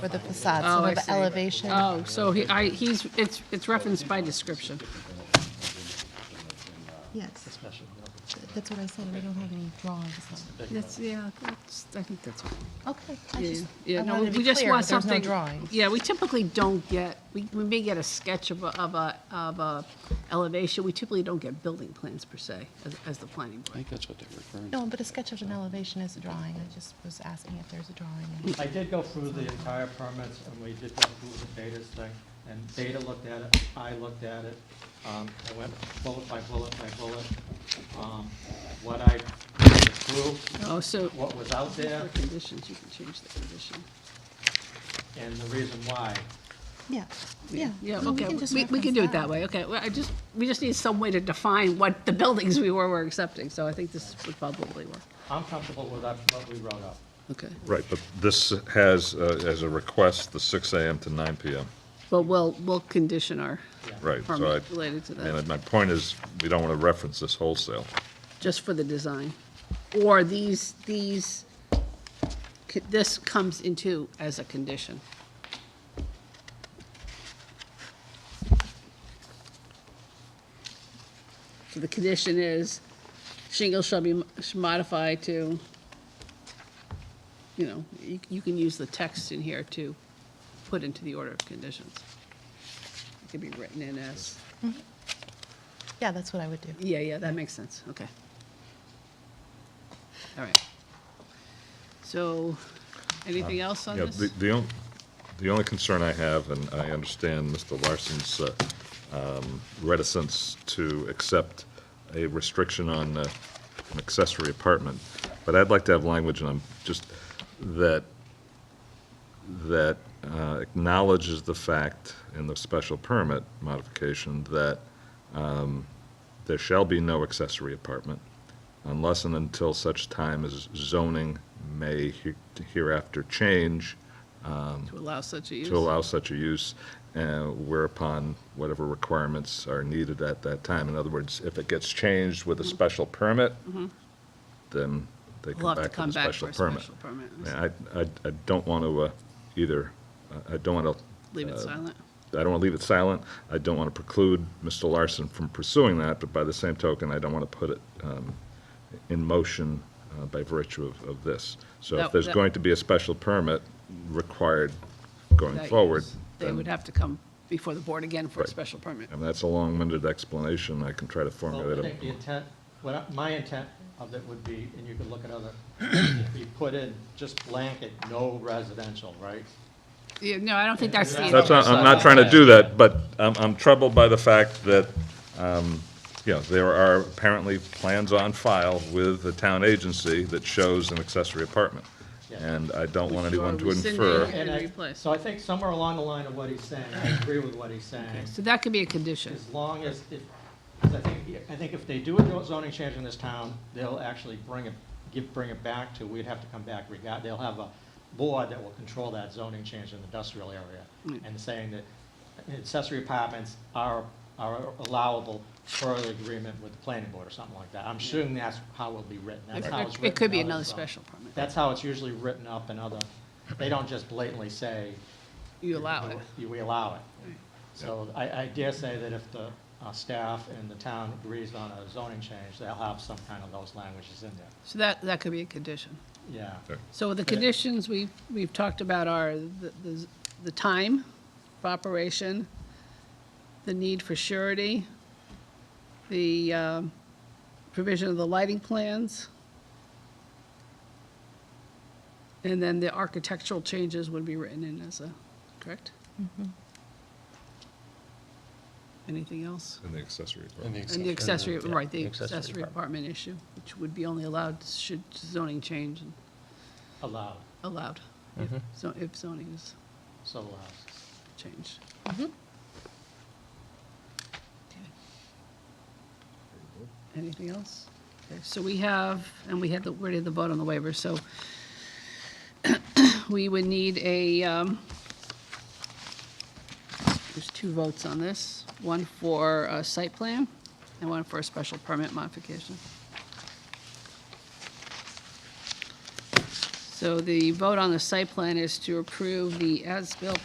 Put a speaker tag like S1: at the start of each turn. S1: Or the facade,
S2: Oh,
S1: some
S2: I
S1: of the
S2: see.
S1: elevation.
S2: Oh, so he, I, he's, it's, it's referenced by description.
S1: Yes, that's what I said, we don't have any drawings.
S2: That's, yeah, that's, I think that's.
S1: Okay. I
S2: Yeah,
S1: just-
S2: yeah,
S1: I
S2: no,
S1: wanted
S2: we
S1: to be
S2: we just
S1: clear,
S2: want
S1: there's no
S2: something.
S1: drawings.
S2: Yeah, we typically don't get, we, we may get a sketch of a, of a, of a elevation. We typically don't get building plans per se as, as the planning
S3: I
S2: board.
S3: think that's what they're referring to.
S1: No, but a sketch of an elevation is a drawing, I just was asking if there's a drawing.
S4: I did go through the entire permits, and we did go through the Beta's thing, and Beta looked at it, I looked at it. Um, I went bullet by bullet by bullet, um, what I approved,
S2: Oh, so.
S4: what was out there,
S2: For conditions, you can change the condition.
S4: and the reason why.
S1: Yeah, yeah.
S2: Yeah,
S1: Well,
S2: okay,
S1: can just
S2: we, we can
S1: reference
S2: do it that way, okay. Well, I just, we just need some way to define what the buildings we were, were accepting, so I think this would probably work.
S4: I'm comfortable with that, what we wrote up.
S2: Okay.
S5: Right, but this has, uh, as a request, the 6 AM to 9 PM.
S2: But we'll, we'll condition our
S5: Right, so
S2: permit
S5: I,
S2: related to that.
S5: and my point is, we don't want to reference this wholesale.
S2: just for the design? Or these, these, c- this comes into as a condition? So the condition is shingles shall be m- sh- modified to, you know, you, you can use the text in here to put into the order of conditions. It could be written in as,
S1: Yeah, that's what I would do.
S2: yeah, yeah, that makes sense, okay. All right. So, anything else on
S5: Um, Yeah,
S2: this?
S5: the, the only, the only concern I have, and I understand Mr. Larson's uh, um, reticence to accept a restriction on uh, an accessory apartment, but I'd like to have language, and I'm just, that, that uh, acknowledges the fact in the special permit modification that um, there shall be no accessory apartment unless and until such time as zoning may he- hereafter change
S2: To allow such a use?
S5: to allow such a use, uh, whereupon whatever requirements are needed at that time. In other words, if it gets changed with a
S2: Mm-hmm.
S5: special permit, then they
S2: We'll have
S5: come
S2: to
S5: back with
S2: come
S5: a
S2: back
S5: special
S2: for a
S5: permit.
S2: special permit.
S5: Yeah, I, I, I don't want to uh, either, I- I don't want to.
S2: Leave
S5: uh,
S2: it silent.
S5: I don't want to leave it silent. I don't want to preclude Mr. Larson from pursuing that, but by the same token, I don't want to put it um, in motion uh, by virtue of, of this. So
S2: That-
S5: if there's
S2: that-
S5: going to be a special permit required going
S2: That
S5: forward,
S2: use, They would
S5: then,
S2: have to come before the board again for a
S5: Right.
S2: special permit.
S5: and that's a long-winded explanation, I can try to
S4: Well,
S5: formulate
S4: I think the
S5: it.
S4: intent, what, I- my intent of it would be, and you could look at other, we put in just blanket, no residential, right?
S2: Yeah, no, I don't think that's the.
S5: That's, not- I'm not trying to do that, but I'm, I'm troubled by the fact that, um, you know, there are apparently plans on file with the town agency that shows an accessory apartment.
S4: Yeah.
S5: And I don't want
S2: Which you are
S5: anyone to
S2: rescinding
S5: infer.
S2: and
S4: I-
S2: replace.
S4: So I think somewhere along the line of what he's saying, I agree with what he's saying,
S2: So that could be a condition.
S4: as long as, if, 'cause I think, I think if they do a zoning change in this town, they'll actually bring it, give, bring it back to, we'd have to come back regard, they'll have a board that will control that zoning change in the industrial area,
S2: Mm.
S4: and saying that accessory apartments are, are allowable per the agreement with the planning board or something like that. I'm assuming that's how it'll be written, that's how it's
S2: It
S4: written.
S2: it could be
S4: in other
S2: another
S4: zones.
S2: special permit.
S4: That's how it's usually written up in other, they don't just blatantly say,
S2: You allow it.
S4: you- We allow it. So I, I dare say that if the uh, staff and the town agrees on a zoning change, they'll have some kind of those languages in there.
S2: So that, that could be a condition.
S4: Yeah.
S2: So the conditions we, we've talked about are the, the- the time of operation, the need for surety, the um, provision of the lighting plans, and then the architectural changes would be written in as a, correct? Anything else?
S5: In the accessory
S3: And
S5: apartment.
S3: the
S2: And the accessory,
S3: yeah,
S2: right, the accessory apartment issue, which would be only allowed should zoning change and
S4: Allowed,
S2: allowed, if zo- if zoning is
S4: so allowed.
S2: changed. Okay. Anything else? Okay, So we have, and we had the, we did the vote on the waiver, so we would need a, um, there's two votes on this, one for a site plan and one for a special permit modification. So the vote on the site plan is to approve the as-built